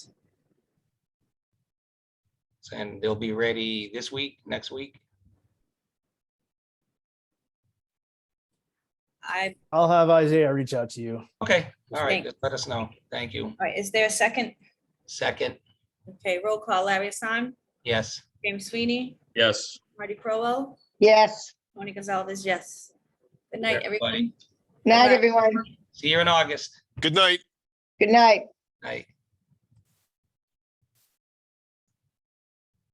and they'll be ready this week, next week. I, I'll have Isaiah reach out to you. Okay, all right, Thanks. just let us know. Thank you. all right, is there a second? Second, Okay, roll call, Larry Hassan, yes, James Sweeney, Yes. Marty Crowell, Yes. Tony Gonzalez, yes. Good night, Everybody. everyone. Bye-bye. Night, everyone. see you in August. Good night. Good night. Night.